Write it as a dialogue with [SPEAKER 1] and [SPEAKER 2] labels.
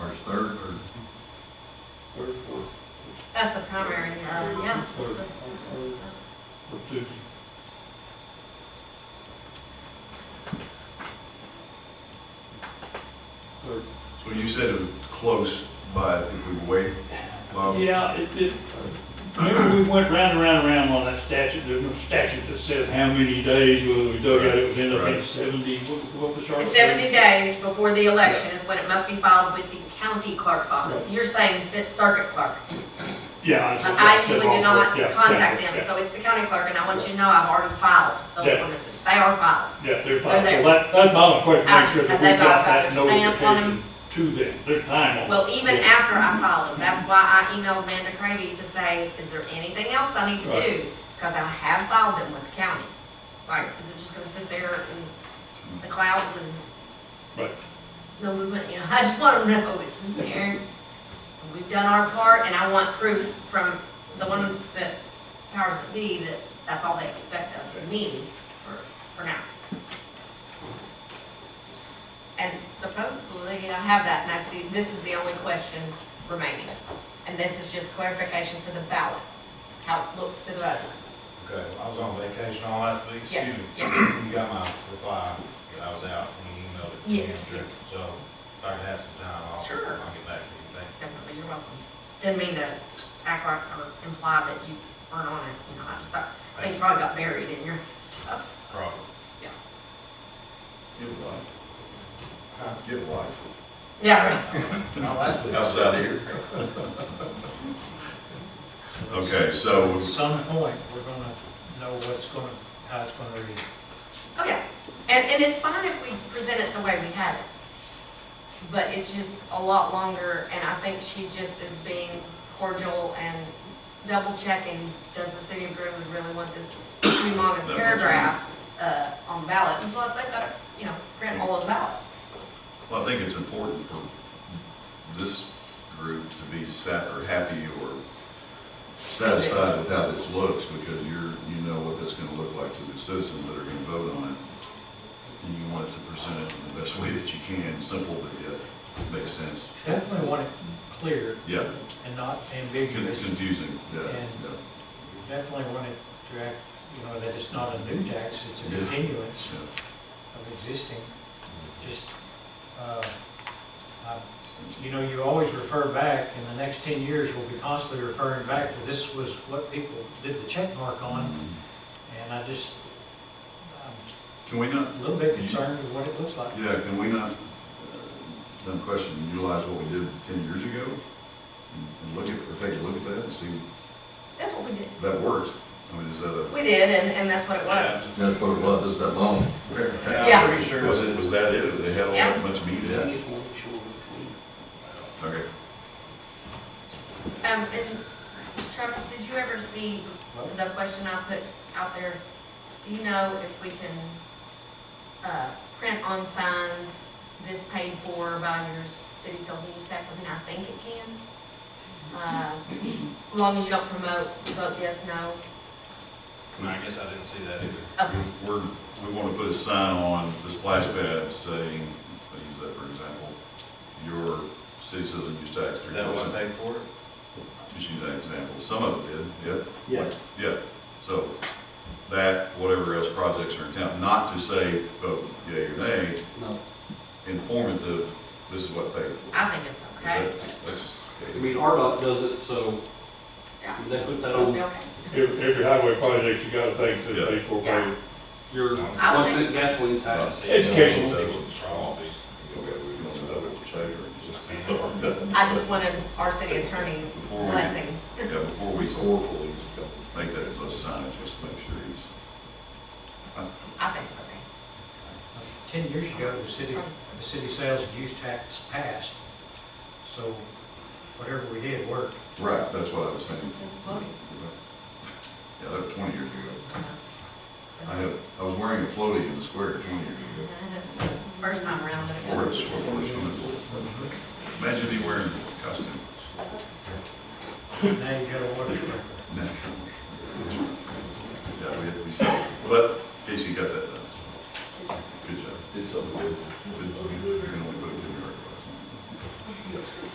[SPEAKER 1] That's the primary, uh, yeah. that's the- that's the-
[SPEAKER 2] for Tuesday. Third.
[SPEAKER 3] So you said it was close, but if we wait, um,
[SPEAKER 2] Yeah, it, it, remember we went round and round and round on that statute, there's no statute that says how many days, whether we dug out, it was ended up being
[SPEAKER 3] Right.
[SPEAKER 2] seventy, what, what was our?
[SPEAKER 1] It's Seventy days before the election is when it must be filed with the county clerk's office. You're saying cir- circuit clerk.
[SPEAKER 2] Yeah.
[SPEAKER 1] But
[SPEAKER 2] said-
[SPEAKER 1] I
[SPEAKER 2] said
[SPEAKER 1] usually do
[SPEAKER 2] all
[SPEAKER 1] not
[SPEAKER 2] four. Yeah,
[SPEAKER 1] contact
[SPEAKER 2] yeah,
[SPEAKER 1] them,
[SPEAKER 2] yeah.
[SPEAKER 1] so it's the county clerk, and I want you to know I've already filed those
[SPEAKER 2] Yeah.
[SPEAKER 1] ordinances. They are filed.
[SPEAKER 2] Yeah, they're fine,
[SPEAKER 1] there.
[SPEAKER 2] so that, that's my only question, make
[SPEAKER 1] Ours,
[SPEAKER 2] sure that
[SPEAKER 1] and
[SPEAKER 2] we
[SPEAKER 1] they've all
[SPEAKER 2] got
[SPEAKER 1] got
[SPEAKER 2] that
[SPEAKER 1] their stamp on 'em.
[SPEAKER 2] notification to them, there's time on it.
[SPEAKER 1] Well, even after I filed them, that's why I emailed Amanda Cravey to say, is there anything else I need to
[SPEAKER 2] Right.
[SPEAKER 1] do? Because I have filed them with the county. Like, is it just gonna sit there in the clouds and
[SPEAKER 2] Right.
[SPEAKER 1] no movement, you know, I just want to know it's in there. We've done our part, and I want proof from the ones that powers that be that that's all they expect of me for, for now. And supposedly, I have that, and that's the, this is the only question remaining. And this is just clarification for the ballot, how it looks to the vote.
[SPEAKER 4] Okay, I was on vacation all last week, excuse
[SPEAKER 1] Yes,
[SPEAKER 4] me.
[SPEAKER 1] yes.
[SPEAKER 4] You got my reply, that I was out when you emailed it to me.
[SPEAKER 1] Yes,
[SPEAKER 4] I'm sure.
[SPEAKER 1] yes.
[SPEAKER 4] So if I can have some time, I'll, I'll
[SPEAKER 1] Sure.
[SPEAKER 4] get back to you, thank you.
[SPEAKER 1] Definitely, you're welcome. Didn't mean to act like or imply that you weren't on it, you know, I just thought, I think you probably got buried in your stuff.
[SPEAKER 4] Problem.
[SPEAKER 3] get a life,
[SPEAKER 4] Huh?
[SPEAKER 3] get a life,
[SPEAKER 1] Yeah, right.
[SPEAKER 4] Not last week.
[SPEAKER 3] outside of here. Okay, so,
[SPEAKER 5] At some point, we're gonna know what's gonna, how it's gonna read.
[SPEAKER 1] Oh, yeah. And, and it's fine if we present it the way we have it. But it's just a lot longer, and I think she just is being cordial and double checking, does the city of Greenwood really want this humongous
[SPEAKER 3] Double check.
[SPEAKER 1] paragraph, uh, on ballot? And plus, they've got to, you know, print all of the ballots.
[SPEAKER 3] well, I think it's important for this group to be sat, or happy, or satisfied with how this looks, because you're, you know what that's gonna look like to the citizens that are gonna vote on it. And you want it to present it in the best way that you can, simple, but yet makes sense.
[SPEAKER 5] Definitely want it clear
[SPEAKER 3] Yeah,
[SPEAKER 5] and not
[SPEAKER 3] con-
[SPEAKER 5] ambiguous.
[SPEAKER 3] confusing, yeah,
[SPEAKER 5] And-
[SPEAKER 3] yeah.
[SPEAKER 5] Definitely want it to act, you know, that it's not a new tax, it's a
[SPEAKER 3] Yeah.
[SPEAKER 5] continuance
[SPEAKER 3] Yeah.
[SPEAKER 5] of existing. Just, uh, I- you know, you always refer back, in the next ten years, we'll be constantly referring back to this was what people did the check mark on, and I just, I'm
[SPEAKER 3] Mm-hmm. Can we not,
[SPEAKER 5] a little bit concerned with what it looks like.
[SPEAKER 3] yeah, can we not, uh, dumb question, utilize what we did ten years ago? and- And look at, or take a look at that and see
[SPEAKER 1] That's what we did.
[SPEAKER 3] if that works? I mean, is that a?
[SPEAKER 1] We did, and, and that's what it was.
[SPEAKER 6] That's what it was, it's that long.
[SPEAKER 1] Yeah.
[SPEAKER 4] I'm pretty sure.
[SPEAKER 3] Was it, was that it? They had all that much meat in it? Okay.
[SPEAKER 1] Um, and Travis, did you ever see
[SPEAKER 5] What?
[SPEAKER 1] the question I put out there? Do you know if we can, uh, print on signs, this paid for by your s- city sales and use tax? I mean, I think it can. Uh, as long as you don't promote, vote yes, no. Oh,
[SPEAKER 4] I guess I didn't see that either.
[SPEAKER 1] Okay.
[SPEAKER 3] We're, we want to put a sign on the splash pad saying, I use that for example, your city citizen use tax.
[SPEAKER 4] Is that what I paid for it?
[SPEAKER 3] Just use that example. Some of it did, yeah? Yes. Yeah, so that, whatever else projects are in town, not to say, vote yea or nay. No. Informative, this is what they.
[SPEAKER 1] I think it's okay.
[SPEAKER 3] That's-
[SPEAKER 7] I mean, RDOT does it, so
[SPEAKER 1] Yeah,
[SPEAKER 7] they put that
[SPEAKER 1] must be
[SPEAKER 7] on
[SPEAKER 1] okay.
[SPEAKER 2] Every, every highway project, you gotta think that
[SPEAKER 3] Yeah.
[SPEAKER 2] people
[SPEAKER 1] Yeah.
[SPEAKER 2] pay
[SPEAKER 7] your
[SPEAKER 1] I would
[SPEAKER 7] one cent gasoline tax.
[SPEAKER 2] Education.
[SPEAKER 3] Okay, we want to double check or just-
[SPEAKER 1] I just wanted our city attorney's
[SPEAKER 3] Before we-
[SPEAKER 1] blessing.
[SPEAKER 3] Yeah, before we, or police, make that as a sign, just make sure he's.
[SPEAKER 1] I think it's okay.
[SPEAKER 5] Ten years ago, the city, the city sales and use tax passed, so whatever we did worked.
[SPEAKER 3] Right, that's what I was saying.
[SPEAKER 1] Voting.
[SPEAKER 3] Yeah, that was twenty years ago. I have, I was wearing a floaty in the square twenty years ago.
[SPEAKER 1] First time around. I feel-
[SPEAKER 3] Or it's- or it's- Imagine me wearing a costume.
[SPEAKER 5] Now you got a water sprinkler.
[SPEAKER 3] Yeah, we had, we said, but Casey got that done. Good job.
[SPEAKER 6] Did something good.